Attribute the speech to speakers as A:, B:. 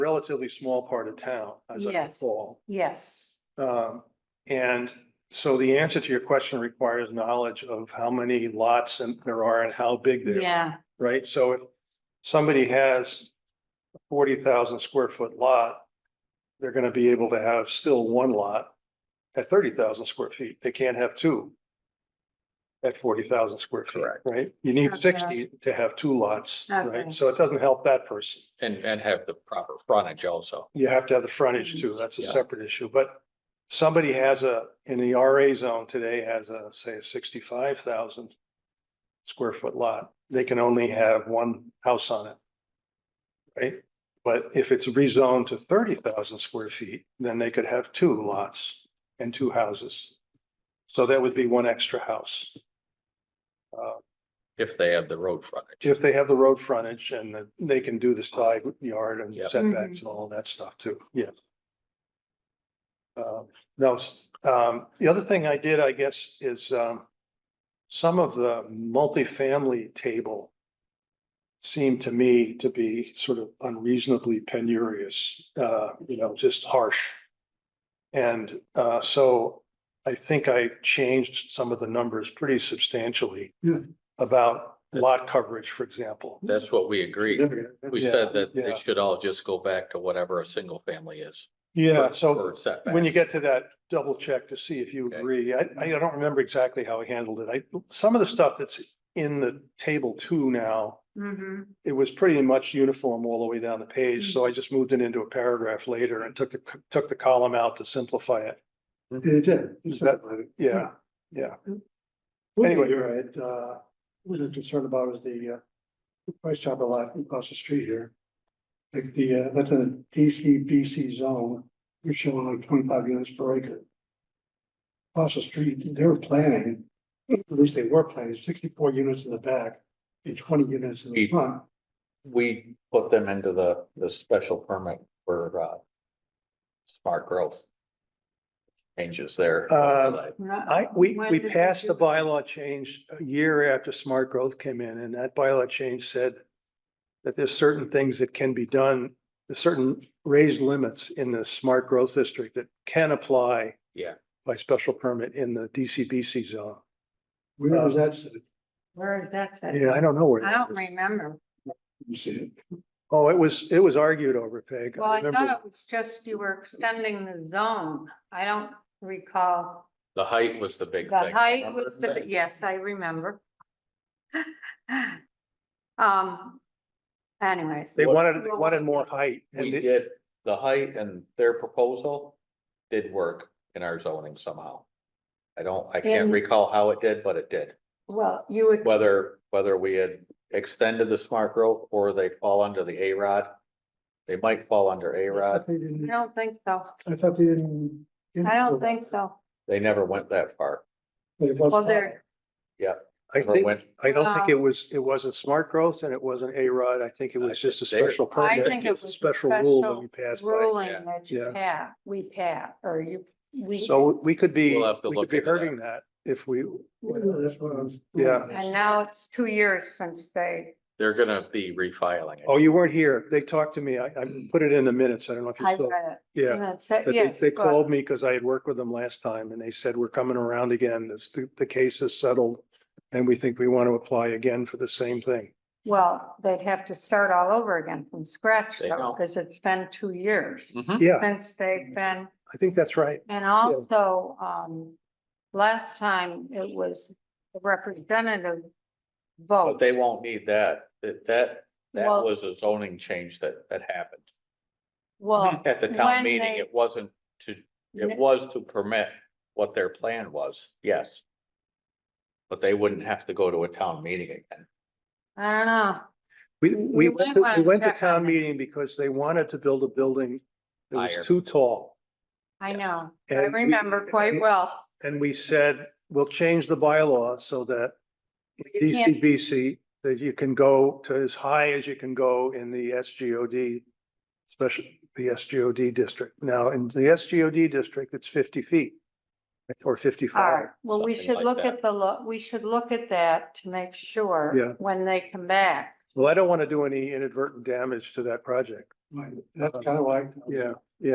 A: relatively small part of town, as I
B: Yes.
A: recall.
B: Yes,
A: Um, and so the answer to your question requires knowledge of how many lots and there are and how big they are,
B: yeah,
A: right? So if somebody has a forty thousand square foot lot, they're gonna be able to have still one lot at thirty thousand square feet. They can't have two at forty thousand square feet,
C: Correct.
A: right? You need
B: Okay.
A: sixty to have two lots,
B: Okay.
A: right? So it doesn't help that person.
C: And, and have the proper frontage also.
A: You have to have the frontage too. That's a
C: Yeah.
A: separate issue, but somebody has a, in the RA zone today has a, say, a sixty-five thousand square foot lot. They can only have one house on it. Right? But if it's rezoned to thirty thousand square feet, then they could have two lots and two houses. So that would be one extra house. Uh,
C: If they have the road frontage.
A: if they have the road frontage and that they can do the side yard and
C: Yep.
A: setbacks and all that stuff too, yeah. Um, no, s- um, the other thing I did, I guess, is, um, some of the multifamily table seemed to me to be sort of unreasonably penurious, uh, you know, just harsh. And, uh, so I think I changed some of the numbers pretty substantially
D: Yeah.
A: about lot coverage, for example.
C: That's what we agreed. We
A: Yeah,
C: said that
A: yeah.
C: they should all just go back to whatever a single family is.
A: Yeah,
C: for-
A: so
C: for setbacks.
A: when you get to that, double check to see if you
C: Okay.
A: agree. I, I don't remember exactly how I handled it. I, some of the stuff that's in the table two now,
B: mm-hmm,
A: it was pretty much uniform all the way down the page, so I just moved it into a paragraph later and took the, took the column out to simplify it.
D: You did.
A: Is that- Yeah, yeah. Anyway.
D: Anyway, you're right, uh, what I'm concerned about is the, uh, the price chopper lot across the street here. Like the, uh, that's an ACBC zone, you're showing like twenty-five units per acre. Across the street, they were planning, at least they were planning, sixty-four units in the back and twenty units in the
C: Eight.
D: front.
C: We put them into the, the special permit for, uh, smart growth. Changes there.
A: Uh, I, we,
B: When
A: we
B: did they
A: passed
B: do
A: the
B: it?
A: bylaw change a year after smart growth came in, and that bylaw change said that there's certain things that can be done, there's certain raised limits in the smart growth district that can apply
C: Yeah.
A: by special permit in the DCBC zone.
D: Where was that? set?
B: where is that set?
A: Yeah, I don't know where.
B: I
A: that
B: don't
A: is.
B: remember,
D: You see it?
A: Oh, it was, it was argued over, Peg.
B: well, I
A: remember-
B: thought it was just you were extending the zone, I don't recall,
C: The height was the big thing.
B: the height
C: remember?
B: was the, yes, I remember. Um, anyways,
A: They wanted, they wanted more height.
C: We
A: and it-
C: did, the height and their proposal did work in our zoning somehow. I don't, I can't
B: And-
C: recall how it did, but it did.
B: well, you would,
C: Whether, whether we had extended the smart growth or they fall under the A-Rod. They might fall under
D: I
C: A-Rod.
D: thought they
B: I
D: didn't-
B: don't think so,
D: I thought they didn't.
B: I don't think so,
C: They never went that far.
B: well, there,
A: I
C: Never
A: think,
C: went-
A: I don't think it
B: Wow.
A: was, it wasn't smart growth and it wasn't A-Rod. I think it was
C: I
A: just a
C: think they were-
A: special
B: I
A: permit.
B: think it
A: It's a
B: was a
A: Special rule that
B: special
A: we passed by.
B: ruling
C: yeah.
B: that you
A: Yeah.
B: pass, we pass, or you, we.
A: So we could be,
C: We'll have to
A: we could
C: look
A: be
C: into that.
A: hurting that if we,
D: That's what I was.
A: Yeah.
B: And now it's two years since they,
C: They're gonna be refiling it.
A: oh, you weren't here. They talked to me. I, I
C: Mm.
A: put it in the minutes. I don't know if
B: I
A: you saw.
B: read it.
A: Yeah.
B: And it said-
A: But they,
B: Mm, yes,
A: they
B: but-
A: called me because I had worked with them last time and they said, we're coming around again. This, the, the case is settled. And we think we want to apply again for the same thing.
B: Well, they'd have to start all over again from scratch
C: They
B: though,
C: don't.
B: because it's been two years
C: Mhm.
A: Yeah,
B: since they've been,
A: I think that's right.
B: and also, um, last time it was the representative
C: But
B: vote.
C: they won't need that. That, that, that
B: Well-
C: was a zoning change that, that happened.
B: Well,
C: At the
B: when
C: town meeting,
B: they-
C: it wasn't to It
B: n-
C: was to permit what their plan was, yes. But they wouldn't have to go to a town meeting again.
B: I don't know.
A: We,
B: Mm,
A: we
B: We- we
A: went
B: might
A: to, we
B: wanna
A: went to
B: check on
A: town
B: that.
A: meeting because they wanted to build a building that
C: Higher.
A: was too tall.
B: I know. I
A: And we-
B: remember quite well.
A: And we said, we'll change the bylaw so that
B: You can't-
A: DCBC, that you can go to as high as you can go in the SGOD, especially the SGOD district. Now, in the SGOD district, it's fifty feet or
B: All
A: fifty-five.
B: right, well, we
C: something
B: should
C: like
B: look
C: that.
B: at the, lo- we should look at that to make sure
A: Yeah.
B: when they come back.
A: Well, I don't want to do any inadvertent damage to that project.
D: Right, that's kind of like.
A: yeah.